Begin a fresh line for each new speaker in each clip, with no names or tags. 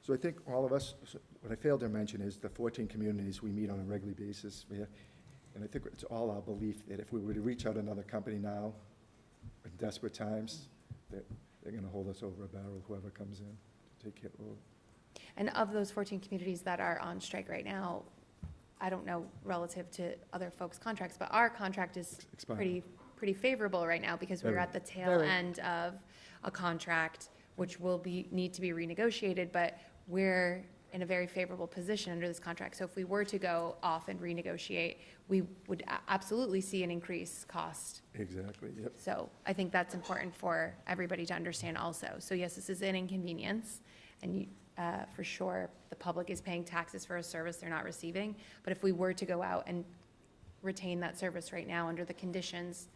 So I think all of us, what I failed to mention is the 14 communities we meet on a regular basis. we have- And I think it's all our belief that if we were to reach out another company now, in desperate times, that they're going to hold us over a barrel, whoever comes in to take care of it.
And of those 14 communities that are on strike right now, I don't know relative to other folks' contracts, but our contract is
It's expired.
pretty, pretty favorable right now because we're
Very.
at the tail
Very.
end of a contract, which will be, need to be renegotiated, but we're in a very favorable position under this contract. So if we were to go off and renegotiate, we would a- absolutely see an increased cost.
Exactly, yep.
So I think that's important for everybody to understand also. So yes, this is an inconvenience, and you, uh, for sure, the public is paying taxes for a service they're not receiving. But if we were to go out and retain that service right now under the conditions,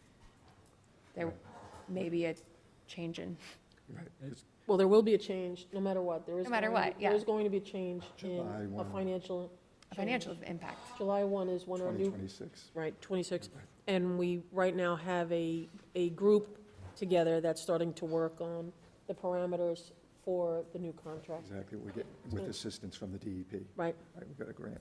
there may be a change in,
Right. It's
Well, there will be a change, no matter what. There is.
No matter
going to
what,
be-
yeah.
There's going to be a change in
July
a
1.
financial.
a financial
change.
impact.
July 1 is when our new,
2026.
right, 26. And we, right now, have a, a group together that's starting to work on the parameters for the new contract.
Exactly, we get, with assistance from the E DEP.
Right.
Right, we got a grant.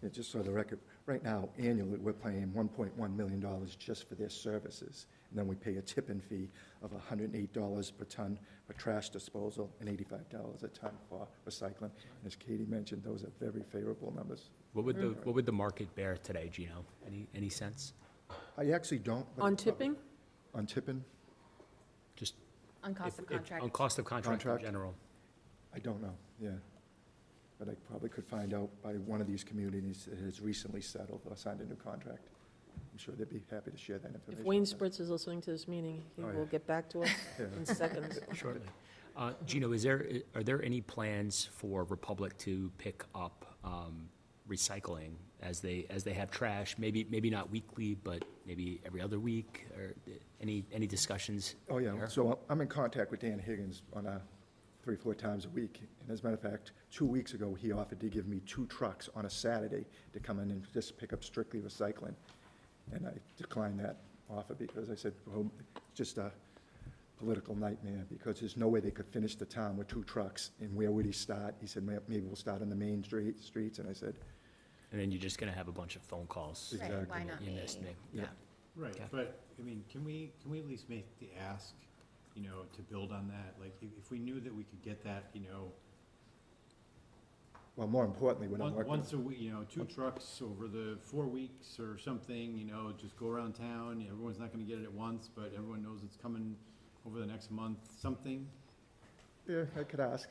Yeah, just so the record, right now, annually, we're paying one point one million dollars just for their services. And then we pay a tipping fee of hundred and eight dollars per ton for trash disposal and eighty-five dollars a ton for recycling. And as Katie mentioned, those are very favorable numbers.
What would
Mm-hmm.
the, what would the market bear today, Gino? Any, any sense?
I actually don't. but
On
it's probably-
tipping,
On tipping,
Just.
On cost
if-
of
if-
contract.
On cost of contract in
Contract.
general.
I don't know, yeah. But I probably could find out by one of these communities that has recently settled or signed a new contract. I'm sure they'd be happy to share that
if
information.
Wayne Spritz is listening to this meeting, he
Oh,
will
yeah.
get back to us
Yeah.
in seconds.
Shortly. Uh, Gino, is there, are there any plans for Republic to pick up, um, recycling as they, as they have trash? Maybe, maybe not weekly, but maybe every other week, or uh, any, any discussions?
Oh, yeah,
there?
so I'm- I'm in contact with Dan Higgins on a, three, four times a week. And as a matter of fact, two weeks ago, he offered to give me two trucks on a Saturday to come in and just pick up strictly recycling. And I declined that offer because I said, well, it's just a political nightmare because there's no way they could finish the town with two trucks. And where would he start? He said, "Ma- maybe we'll start on the main street, streets. And I said,
And then you're just gonna have a bunch of phone calls.
Right, Exactly. why
not
You missed
me?
me,
Yeah.
yeah.
Right,
Yeah.
but, I mean, can we, can we at least make the ask, you know, to build on that? Like, if, if we knew that we could get that, you know,
well, more importantly, when I'm
on-
working.
once a week, you know, two trucks over the four weeks or something, you know, just go around town, everyone's not gonna get it at once, but everyone knows it's coming over the next month, something.
Yeah, I could ask.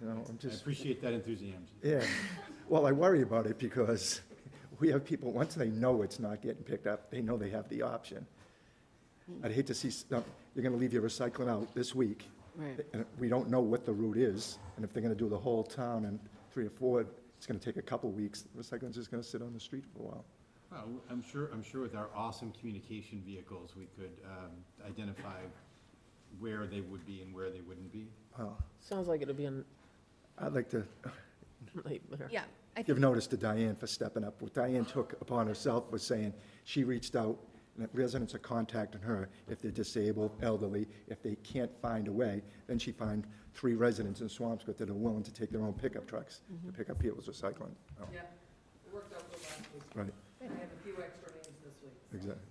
You know, I'm
I
just.
appreciate that enthusiasm.
Yeah, well, I worry about it because we have people, once they know it's not getting picked up, they know they have the option. I'd hate to see, s- no, you're gonna leave your recycling out this week,
Right.
and we don't know what the route is, and if they're gonna do the whole town in three or four, it's gonna take a couple weeks, recycling's just gonna sit on the street for a while.
Well, I'm sure, I'm sure with our awesome communication vehicles, we could, um, identify where they would be and where they wouldn't be.
Well,
Sounds like it'll be a
I'd like to
nightmare.
Yeah, I
give
think,
notice to Diane for stepping up. What Diane took upon herself was saying, she reached out, and that residents are contacting her if they're disabled, elderly, if they can't find a way. Then she found three residents in Swampscott that are willing to take their own pickup trucks to pick up people's recycling. Oh,
Yeah, it worked out good last week.
Right,
I have a few extra names this week.
exactly.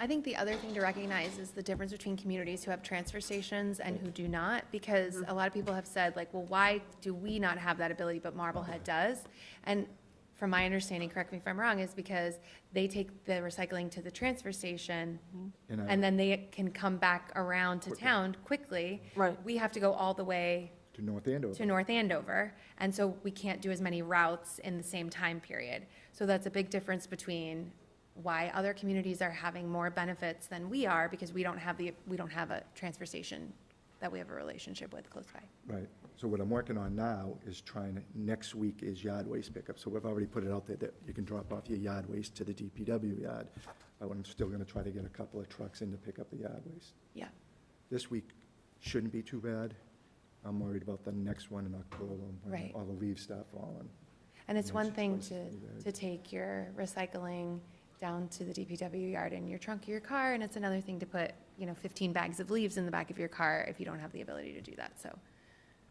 I think the other thing to recognize is the difference between communities who have transfer stations and who do not, because a lot of people have said, like, well, why do we not have that ability, but Marblehead does? And from my understanding, correct me if I'm wrong, is because they take the recycling to the transfer station,
And I-
and then they can come back around to
Quickly.
town quickly.
Right.
We have to go all the way
To North Andover.
to North Andover, and so we can't do as many routes in the same time period. So that's a big difference between why other communities are having more benefits than we are, because we don't have the, we don't have a transfer station that we have a relationship with close by.
Right, so what I'm working on now is trying, to- next week is yard waste pickup, so we've already put it out there that you can drop off your yard waste to the DPW yard. But I'm still gonna try to get a couple of trucks in to pick up the yard waste.
Yeah.
This week shouldn't be too bad, I'm worried about the next one in October, when
Right.
all the leaves start falling.
And it's
Yeah,
one
it's
thing
twice
to,
as bad.
to take your recycling down to the DPW yard in your trunk of your car, and it's another thing to put, you know, fifteen bags of leaves in the back of your car if you don't have the ability to do that, so